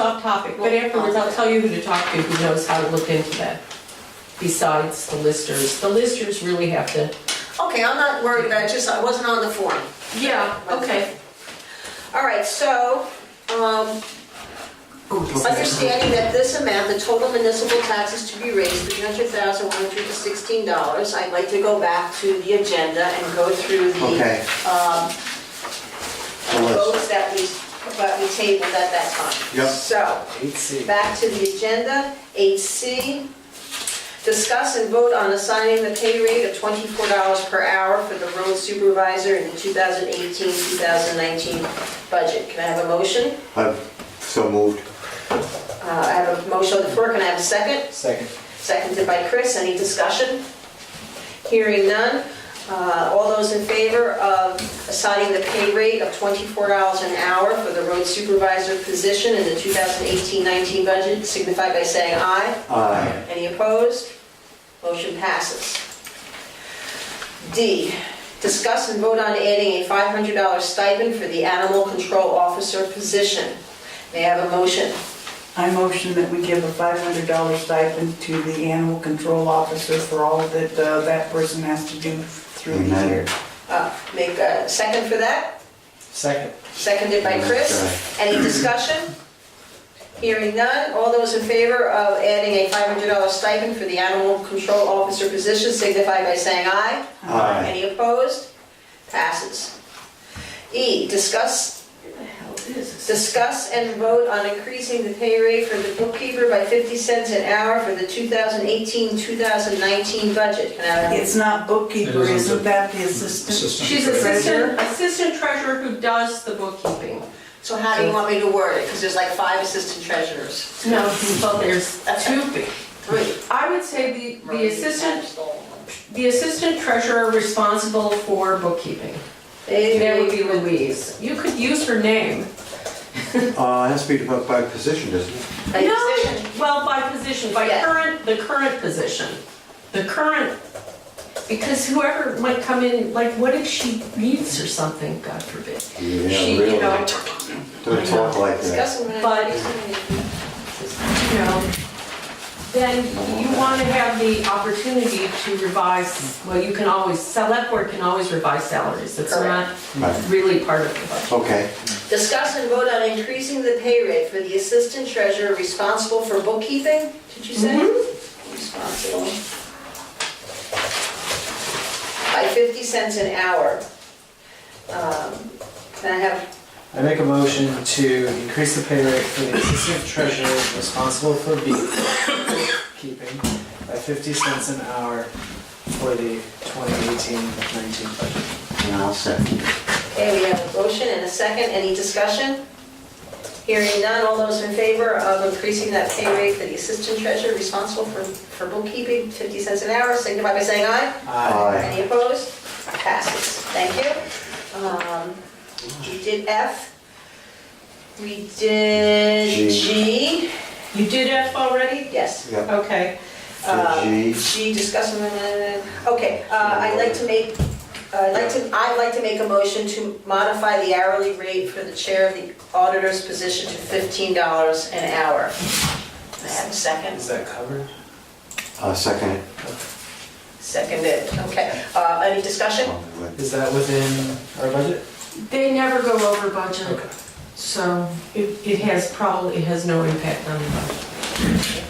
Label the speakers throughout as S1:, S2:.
S1: off topic, but afterwards I'll tell you who to talk to who knows how to look into that. Besides the listers, the listers really have to.
S2: Okay, I'm not worried about it, just I wasn't on the form.
S1: Yeah,
S2: okay. All right, so, um, understanding that this amount, the total municipal taxes to be raised, three hundred thousand, one hundred and sixteen dollars, I'd like to go back to the agenda and go through the
S3: Okay.
S2: um,
S3: The list.
S2: votes that we, that we tabled at that time.
S3: Yep.
S2: So,
S4: Eight C.
S2: Back to the agenda, 8C, discuss and vote on assigning the pay rate of $24 per hour for the road supervisor in the 2018-2019 budget. Can I have a motion?
S3: I've so moved.
S2: Uh, I have a motion on the floor, can I have a second?
S4: Second.
S2: Seconded by Chris, any discussion? Hearing none, Uh, all those in favor of assigning the pay rate of $24 an hour for the road supervisor position in the 2018-19 budget signify by saying aye.
S3: Aye.
S2: Any opposed? Motion passes. D, discuss and vote on adding a $500 stipend for the animal control officer position. May I have a motion?
S5: I motion that we give a $500 stipend to the animal control officer for all that uh, that person has to do through the
S3: Amen.
S5: year.
S2: Uh, Make a second for that,
S4: Second.
S2: seconded by Chris. Any discussion? Hearing none, all those in favor of adding a $500 stipend for the animal control officer position signify by saying aye.
S3: Aye.
S2: Any opposed? Passes. E, discuss, discuss and vote on increasing the pay rate for the bookkeeper by 50 cents an hour for the 2018-2019 budget. Can I have a-
S5: It's not bookkeeper,
S6: It isn't
S5: isn't
S6: the-
S5: that the assistant?
S6: Assistant.
S1: She's
S6: treasurer.
S1: assistant, assistant treasurer who does the bookkeeping.
S2: So how do you want me to word it? Because there's like five assistant treasurers.
S1: No, well, there's two.
S2: Three.
S1: I would say the, the assistant, the assistant treasurer responsible for bookkeeping. That would be Louise. You could use her name.
S3: Uh, it has to be by- by position, doesn't it?
S2: By
S1: No,
S2: position.
S1: Well, by position, by
S2: Yeah.
S1: current, the current position. The current, because whoever might come in, like, what if she reads or something, God forbid? She, you know,
S3: Don't talk like that.
S2: Discuss and vote
S1: But-
S2: on increasing the-
S1: you know, then you want to have the opportunity to revise, well, you can always, select board can always revise salaries. It's not
S3: Right.
S1: really part of the budget.
S3: Okay,
S2: Discuss and vote on increasing the pay rate for the assistant treasurer responsible for bookkeeping, did you say? Responsible. By 50 cents an hour. Um, Can I have,
S4: I make a motion to increase the pay rate for the assistant treasurer responsible for beekeeping by fifty cents an hour for the 2018-19 budget.
S3: and I'll second.
S2: okay, we have a motion and a second, any discussion? Hearing none, all those in favor of increasing that pay rate for the assistant treasurer responsible for for bookkeeping, 50 cents an hour, signify by saying aye.
S3: Aye.
S2: Any opposed? Passes, thank you. Um, We did F. We did
S3: G.
S2: G,
S1: You did F already?
S2: yes. Uh,
S3: Yep,
S1: Okay.
S3: so G.
S2: G, discuss, okay, uh, I'd like to make, uh, I'd like to, I'd like to make a motion to modify the hourly rate for the chair of the auditor's position to $15 an hour. May I have a second?
S4: Is that covered?
S3: I'll uh, second it.
S2: Seconded, okay. Uh, Any discussion?
S4: Is that within our budget?
S1: They never go over budget,
S4: Okay.
S1: so it, it has probably, it has no impact on the budget.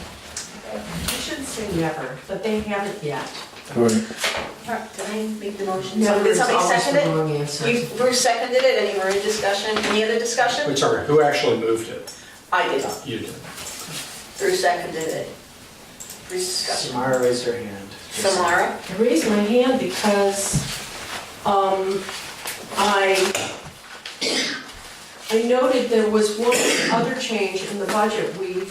S1: I shouldn't say never, but they haven't yet.
S2: Did I make the motion?
S1: Never
S2: Did
S1: is
S2: somebody
S1: always
S2: second it?
S1: the wrong answer.
S2: You, Bruce seconded it, any more in discussion, any other discussion?
S6: Wait, sorry, who actually moved it?
S2: I did,
S6: You did.
S2: Bruce seconded it. Bruce discussion.
S4: Samara raised her hand.
S2: Samara?
S1: I raised my hand because um, I, I noted there was one other change in the budget. We,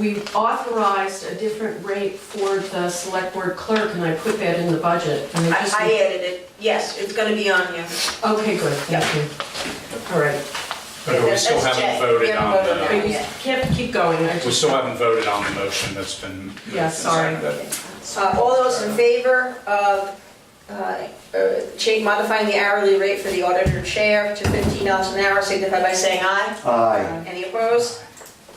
S1: we authorized a different rate for the select board clerk, and I put that in the budget. and
S2: I
S1: I just-
S2: I added it, yes, it's gonna be on here.
S1: Okay, good, thank you. All right,
S6: But we still
S2: That's
S6: haven't
S2: Jay. We
S6: voted
S2: haven't
S6: on
S2: voted on
S1: but
S6: the,
S1: you can't keep going, I
S6: we
S1: just,
S6: still haven't voted on the motion that's been.
S1: Yeah, sorry.
S2: Uh, All those in favor of uh, uh, change, modifying the hourly rate for the auditor chair to $15 an hour, signify by saying aye.
S3: Aye.
S2: Any opposed?